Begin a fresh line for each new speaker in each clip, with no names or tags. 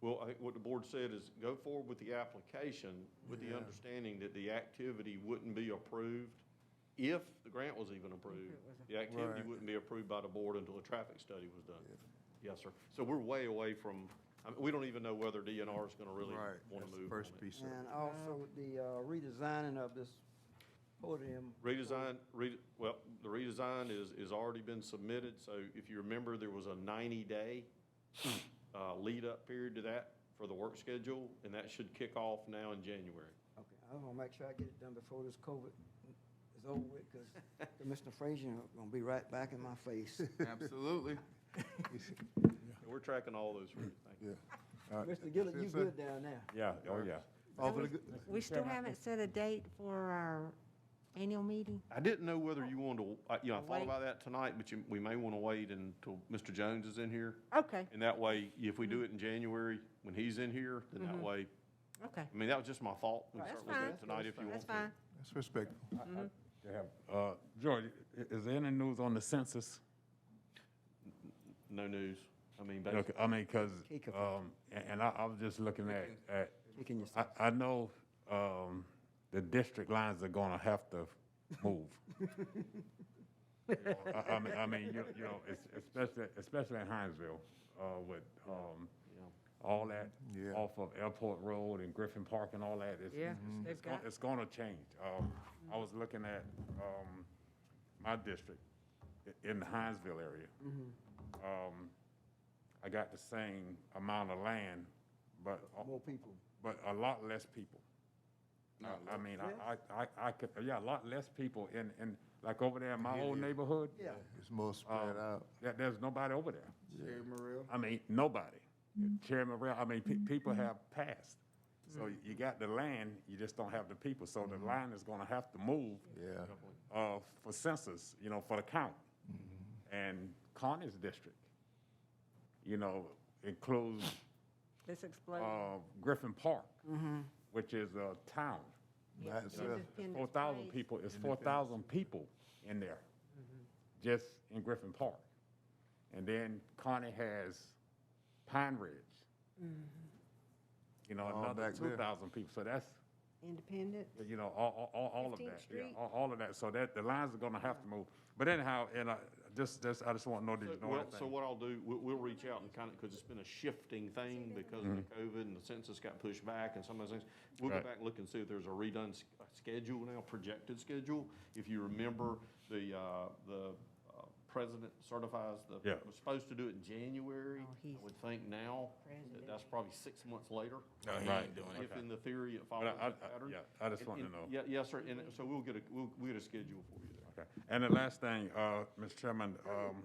Well, I think what the board said is go forward with the application with the
Yeah.
understanding that the activity wouldn't be approved if the grant was even approved. The activity
Right.
wouldn't be approved by the board until a traffic study was done. Yes, sir. So we're way away from, I mean, we don't even know whether DNR is going to really
Right, that's
want to
the
move on
first
it.
piece of it.
And also the uh, redesigning of this podium.
Redesign, re, well, the redesign is, is already been submitted, so if you remember, there was a ninety-day, uh, lead-up period to that for the work schedule, and that should kick off now in January.
Okay, I'm gonna make sure I get it done before this COVID is over with, because Commissioner Frazier gonna be right back in my face.
Absolutely.
And We're tracking all those, routes. thank you.
Yeah.
Mr. Gillett, you good down there?
Yeah, oh, yeah.
All for the good,
We still haven't set a date for our annual meeting?
I didn't know whether you wanted to, I- you know, I thought
Wait.
about that tonight, but you, we may want to wait until Mr. Jones is in here.
Okay,
And that way, if we
Mm-hmm.
do it in January, when he's in here, then that way,
okay.
I mean, that was just my thought. We can
Mm-hmm. That's
start looking at
fine.
it Tonight, if you want
That's
to.
fine.
that's respectful.
They have, uh, George, i- is there any news on the census?
No news. I mean,
Look,
basically,
I mean, cause,
Take a-
um, and, and I, I was just looking at, at,
Taking your
I, I know, um, the district lines are gonna have to move. You know, I, I mean, I mean, you, you know, es- especially, especially in Hinesville, uh, with, um, all that
Yeah.
off of Airport Road and Griffin Park and all that. It's-
Yeah,
it's-
they've
it's gon-
got-
It's gonna change. Um, I was looking at, um, my district i- in the Hinesville area.
Mm-hmm.
Um, I got the same amount of land, but. a-
More people.
But a lot less people. I I mean, I, I, I- I could, yeah, a lot less people in, in, like over there in my old neighborhood.
Yeah,
It's more
Um,
spread out.
There, there's nobody over there. I mean, nobody. Chairman Rail, I mean, pe- people have passed. So you got the land, you just don't have the people. So the line is gonna have to move.
Yeah.
Uh, for census, you know, for the count. And Connie's district, you know, includes,
This exploded.
uh, Griffin Park, which is a town.
By itself.
Four thousand people, it's four thousand people in there, just in Griffin Park. And then Connie has Pine Ridge. You know,
All
another
back there.
two thousand people, so that's,
Independent.
you know, all, all- all, all of
15th
that, yeah,
Street.
all, all of that, so that, the lines are gonna have to move. But anyhow, and I, just, just, I just want to know, did you know
well, so
anything?
what I'll do, we'll, we'll reach out and kind of, because it's been a shifting thing because of the COVID and the census got pushed back and some of those things. We'll go
Mm-hmm. Right.
back and look and see if there's a redone s- uh, schedule now, projected schedule. If you remember, the, uh, the uh, president certifies the,
Yeah.
was supposed to do it in January.
Oh,
I
he's-
would think now, that that's probably six months later.
No, he ain't doing it.
If in the theory it follows
I-
the
I-
pattern.
yeah, I just
And-
wanted to
and-
know.
Yeah, yes, sir, and so we'll get a, we'll, we'll get a schedule for you there.
Okay. And the last thing, uh, Mr. Chairman, um,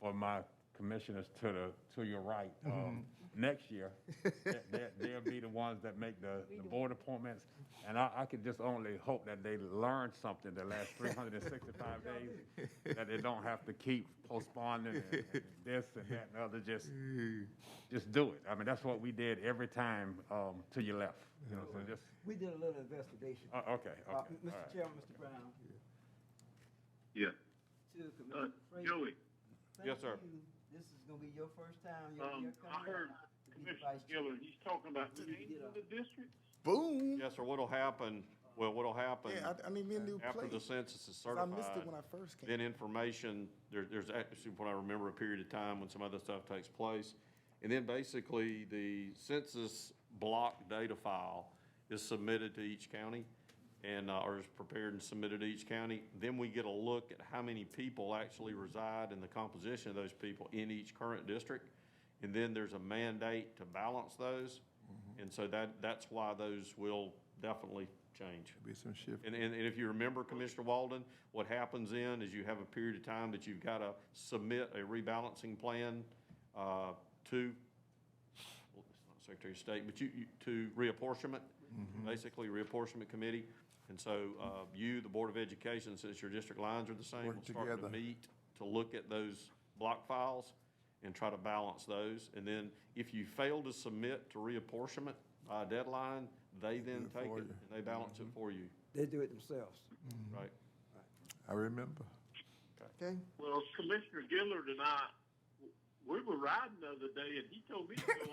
for my commissioners to the, to your right, um, next year, they- they- they'll be the ones that make the, the board appointments. And I, I could just only hope that they learn something the last three hundred and sixty-five days, that they don't have to keep postponing and- and this and that and other, just, just do it. I mean, that's what we did every time, um, till you left, you know, so just,
we did a little investigation.
uh, okay, okay.
Uh,
all right.
Mr. Chairman, Mr. Brown,
Yeah.
to
Uh,
Commissioner Frazier.
Joey,
thank
Yes, sir.
you. This is gonna be your first time. You're, you're
um, I
coming
heard
back to be the
Commissioner
vice chair.
Giller, he's talking about
Did he
changing
get up?
the districts?
Boom.
Yes, sir, what'll happen, well, what'll happen.
Yeah, I, I need me a new
After
plate.
the census is
I
certified.
missed it when I first came.
Then information, there, there's actually, when I remember, a period of time when some other stuff takes place. And then basically, the census block data file is submitted to each county and, uh, or is prepared and submitted to each county. Then we get a look at how many people actually reside and the composition of those people in each current district. And then there's a mandate to balance those. And so that, that's why those will definitely change.
Be some shift.
And, and, and if you remember, Commissioner Walden, what happens then is you have a period of time that you've got to submit a rebalancing plan, uh, to, well, it's not Secretary of State, but you, you, to reapportionment,
Mm-hmm.
basically reapportionment committee. And so, uh, you, the Board of Education, since your district lines are the same,
Work
will start to
together.
meet to look at those block files and try to balance those. And then if you fail to submit to reapportionment by a deadline, they then
it
take it
for you. Mm-hmm.
and they balance it for you.
They do it themselves.
Right.
I remember.
Okay.
Well, Commissioner Gillard and I, w- we were riding the other day and he told me to go